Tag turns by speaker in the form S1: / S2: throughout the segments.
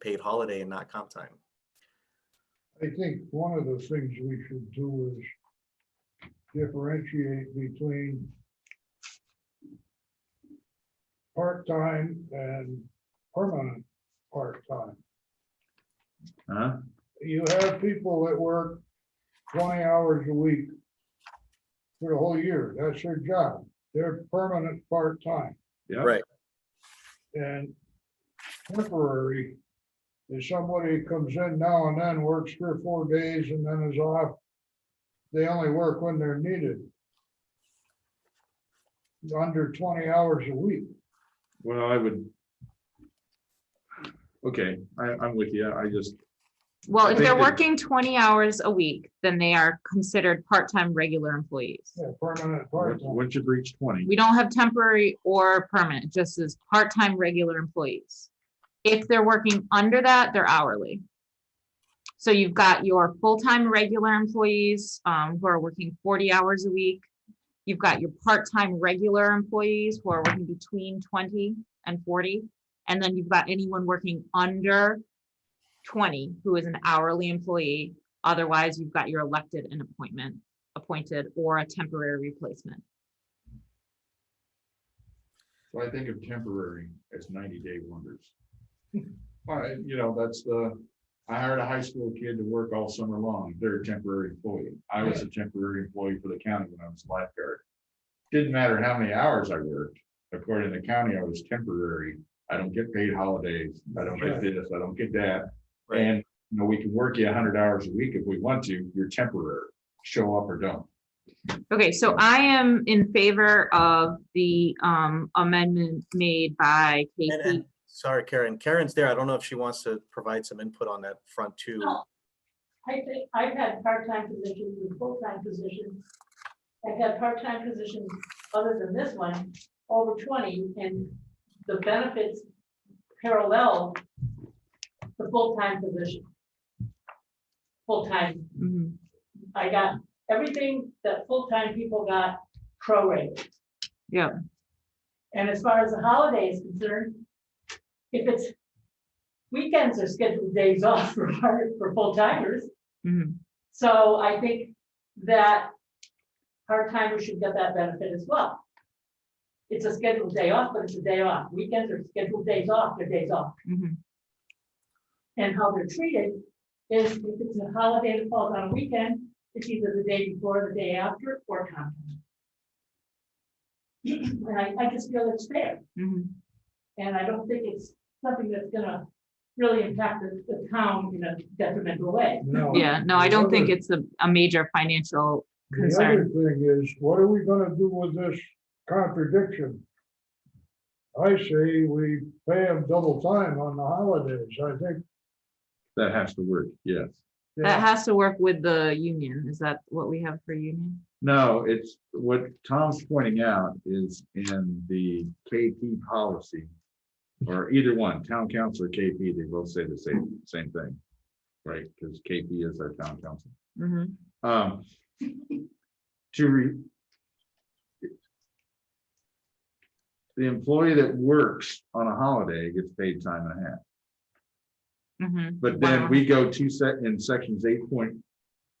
S1: paid holiday and not comp time.
S2: I think one of the things we should do is differentiate between part-time and permanent part-time.
S3: Huh?
S2: You have people that work twenty hours a week for the whole year. That's their job. They're permanent part-time.
S3: Yeah.
S1: Right.
S2: And temporary is somebody who comes in now and then, works three or four days and then is off. They only work when they're needed. Under twenty hours a week.
S3: Well, I would. Okay, I, I'm with you. I just,
S4: Well,
S3: I
S4: if they're
S3: think that-
S4: working twenty hours a week, then they are considered part-time regular employees.
S2: Yeah, permanent
S3: once
S2: part-time.
S3: once you reach twenty,
S4: We don't have temporary or permanent, it just as part-time regular employees. If they're working under that, they're hourly. So you've got your full-time regular employees, um, who are working forty hours a week. You've got your part-time regular employees who are working between twenty and forty. And then you've got anyone working under twenty who is an hourly employee. Otherwise, you've got your elected and appointment, appointed or a temporary replacement.
S3: so I think of temporary as ninety day wonders. All right, you know, that's the, I hired a high school kid to work all summer long. They're a temporary employee. I was a temporary employee for the county when I was a lifeguard. Didn't matter how many hours I worked. According to the county, I was temporary. I don't get paid holidays. I don't get this, I don't get that.
S1: Right.
S3: And, you know, we can work you hundred hours a week if we want to, you're temporary, show up or don't.
S4: Okay, so I am in favor of the um amendment made by
S1: And, and,
S4: Casey.
S1: sorry, Karen, Karen's there. I don't know if she wants to provide some input on that front too.
S5: No, I think, I've had part-time positions and full-time positions. I've had part-time positions other than this one, over twenty, and the benefits parallel the full-time position. Full-time,
S4: Mhm.
S5: I got everything that full-time people got prorated.
S4: Yep.
S5: And as far as the holiday is concerned, if it's, weekends are scheduled days off for, for full-timers.
S4: Mhm.
S5: So I think that part-timers should get that benefit as well. It's a scheduled day off, but it's a day off. Weekends are scheduled days off, they're days off.
S4: Mhm.
S5: And how they're treated is if it's a holiday that falls on a weekend, it's either the day before, the day after, or comp time. And I, I just feel it's fair,
S4: Mhm.
S5: and I don't think it's something that's gonna really impact the, the town in a detrimental way.
S1: Oh,
S2: Now,
S4: Yeah, no, I don't think
S2: the
S4: it's a, a major financial
S2: other- The other
S4: concern.
S2: thing is, what are we gonna do with this contradiction? I say we pay them double time on the holidays. I think.
S3: That has to work, yes.
S4: That has to work with the union. Is that what we have for union?
S3: No, it's what Tom's pointing out is in the KP policy. Or either one, town council or KP, they both say the same, same thing. Right, because KP is our town council.
S4: Mhm.
S3: Um, to re. The employee that works on a holiday gets paid time and a half.
S4: Mhm.
S3: But then
S4: Wow.
S3: we go to set in sections eight point,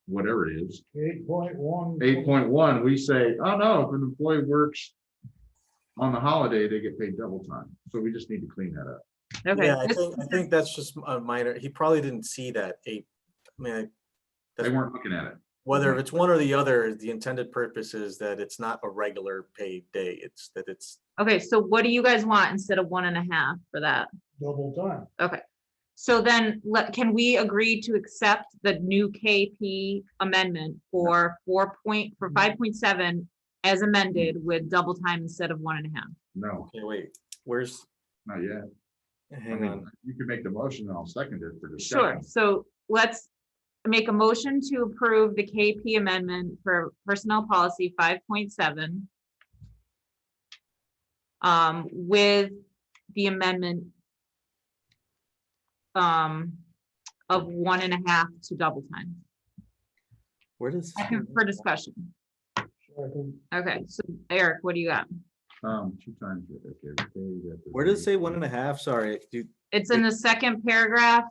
S3: whatever it is,
S2: Eight point one.
S3: eight point one, we say, oh no, if an employee works. On the holiday, they get paid double time. So we just need to clean that up.
S4: Okay,
S1: Yeah, I
S4: this-
S1: think, I think that's just a minor, he probably didn't see that eight, I mean, I-
S3: They
S1: that's-
S3: weren't looking at it.
S1: whether it's one or the other, the intended purpose is that it's not a regular paid day. It's that it's,
S4: okay, so what do you guys want instead of one and a half for that?
S2: Double time.
S4: So then, let, can we agree to accept the new KP amendment for four point, for five point seven as amended with double time instead of one and a half?
S3: No,
S1: okay, wait, where's,
S3: not yet. I
S1: hang
S3: mean,
S1: on.
S3: you can make the motion and I'll second it for
S4: Sure,
S3: discussion.
S4: so let's make a motion to approve the KP amendment for personnel policy five point seven. Um, with the amendment. Um, of one and a half to double time,
S1: Where does?
S4: Second for discussion.
S2: Second.
S4: Okay, so Eric, what do you got?
S3: Um, two times. okay, okay, that's-
S1: Where does it say one and a half? Sorry, do,
S4: It's in the second paragraph